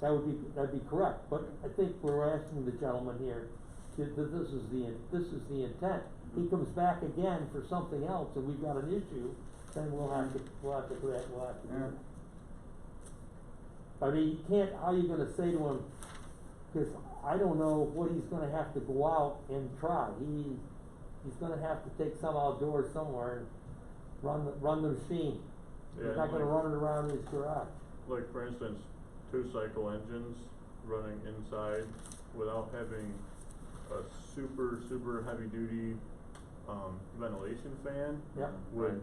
That would be, that'd be correct, but I think we're asking the gentleman here, that that this is the, this is the intent. He comes back again for something else and we've got an issue, then we'll have to, we'll have to, we'll have to. do Yeah. that. I mean, you can't, how you gonna say to him, cause I don't know what he's gonna have to go out and try. He, he's gonna have to take some outdoors somewhere and run, the run the machine. Yeah, He's not gonna like- run it around his garage. Like for instance, two cycle engines running inside without having a super, super heavy duty, um, ventilation fan. Yep. Would Right.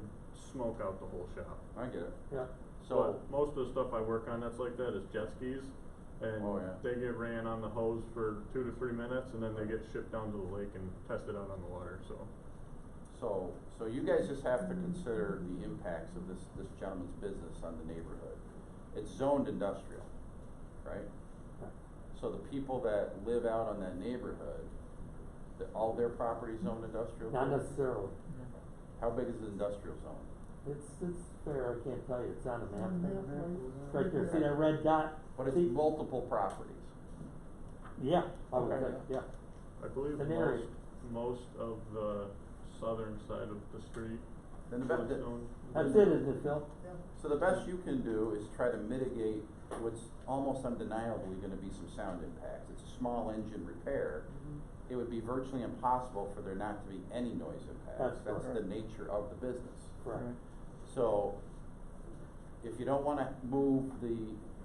smoke out the whole shop. I get it. Yeah, So, But Most of the stuff I work on that's like that is jet skis and Oh, yeah. they get ran on the hose for two to three minutes and then they get shipped down to the lake and tested out on the water, so. so, so you guys just have to consider the impacts of this, this gentleman's business on the neighborhood. It's zoned industrial, right? So the people that live out on that neighborhood, that all their properties zoned industrial? not too? necessarily. How big is the industrial zone? It's, it's fair, I can't tell you, it's on the map. Mhm. Right there, see that red dot? But it's See- multiple properties. Yeah, I would Okay. Mm-hmm. say, yeah. I believe An area. most, most of the southern side of the street. Then the be- was the- zoned That's it, industrial. isn't it, Phil? So the best you can do is try to mitigate what's almost undeniably gonna be some sound impacts. It's a small engine repair. Mm-hmm. It would be virtually impossible for there not to be any noise impacts. That's That's the correct. nature of the business. Correct. So if you don't wanna move the,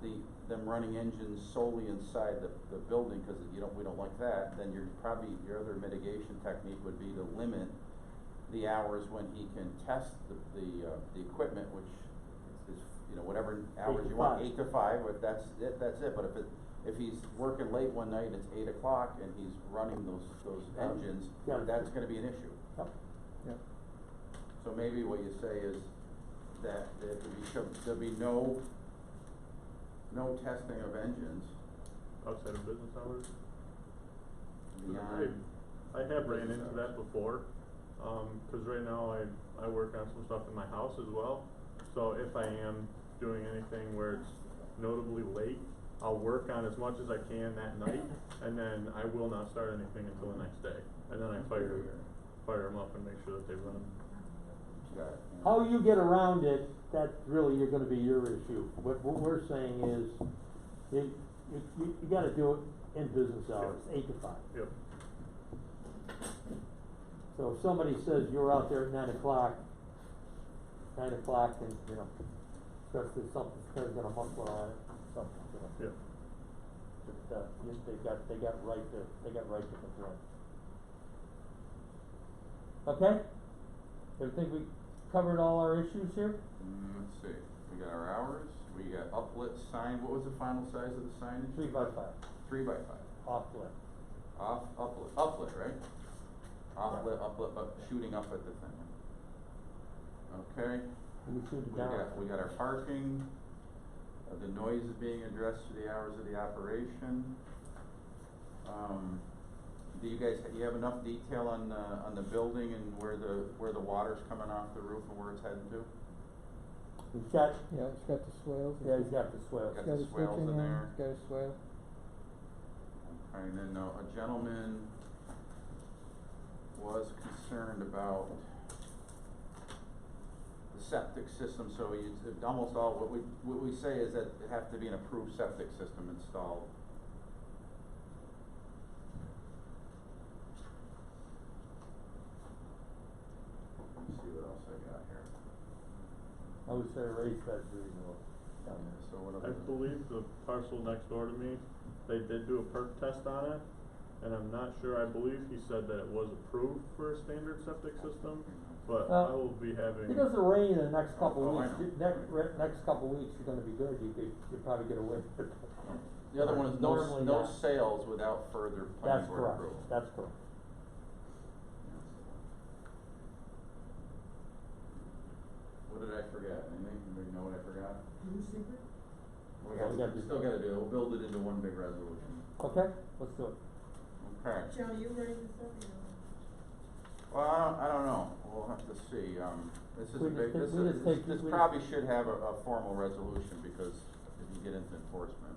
the, them running engines solely inside the, the building, cause you don't, we don't like that, then your, probably, your other mitigation technique would be to limit the hours when he can test the, the, uh, the equipment, which is, you know, whatever hours to you want, five. eight to five, if that's it, that's it, but if it, if he's working late one night and it's eight o'clock and he's running those, those Then- engines, yeah. that's gonna be an issue. Yep. So maybe what you say is that there could be, some- there'll be no, no testing of engines Outside of business hours? beyond. I have ran Business into that hours. before, Um 'cause cause right now I, I work on some stuff in my house as well. So if I am doing anything where it's notably late, I'll work on as much as I can that night, and then I will not start anything until the next day. And then I fire, fire them up and make sure that they run. Got it, yeah. How you get around it, that's really, you're gonna be your issue. What, what we're saying is, you, you, you you gotta do it in business hours, eight to five. Yep, So if somebody says you're out there at nine o'clock, nine o'clock, and, you know, especially something, they're gonna muffle on it, something, you know. yep. But, uh, yes, they got, they got right to, they got right to complain. Okay? Do you think we covered all our issues here? Mm, let's see, we got our hours, we got uplit sign, what was the final size of the signage? Three by five, Three by five, off limit. off, uplit, uplit, right? Offlit, uplit, up, shooting up at the thing. Okay, We shoot it we down. got, we got our parking, uh, the noise is being addressed through the hours of the operation. Um, do you guys, you have enough detail on, the on the building and where the, where the water's coming off the roof and where it's heading to? He's got, Yeah, it's got the swales. and yeah, he's stuff. got the swell. Got It's the got a switch swales in in there. there, it's got a swale. Okay, and then uh, a gentleman was concerned about the septic system, so you, it's almost all, what we, what we say is that it have to be an approved septic system installed. Let me see what else I got here. I would say raise that's reasonable. Yeah, so what I other? believe the parcel next door to me, they did do a perk test on it, and I'm not sure, I believe he said that it was approved for a standard septic system, but Uh, I will be having. If it doesn't rain in the next couple Oh, I weeks, know. you- next, re- next couple weeks, you're gonna be good, you could, you're probably gonna win. The other one is no, s- Normally no not. sales without further That's planning board correct, approval. that's correct. What did I forget? Anything, anybody know what I forgot? New secret? We got, We got- we still gotta do, it. we'll build it into one big resolution. Okay, let's do it. Okay, Joe, you ready to start, you know? well, I don't, I don't know, we'll have to see, um, this is a We just big, take- this we just is, take- this we just- probably should have a, a formal resolution, because if you get into enforcement.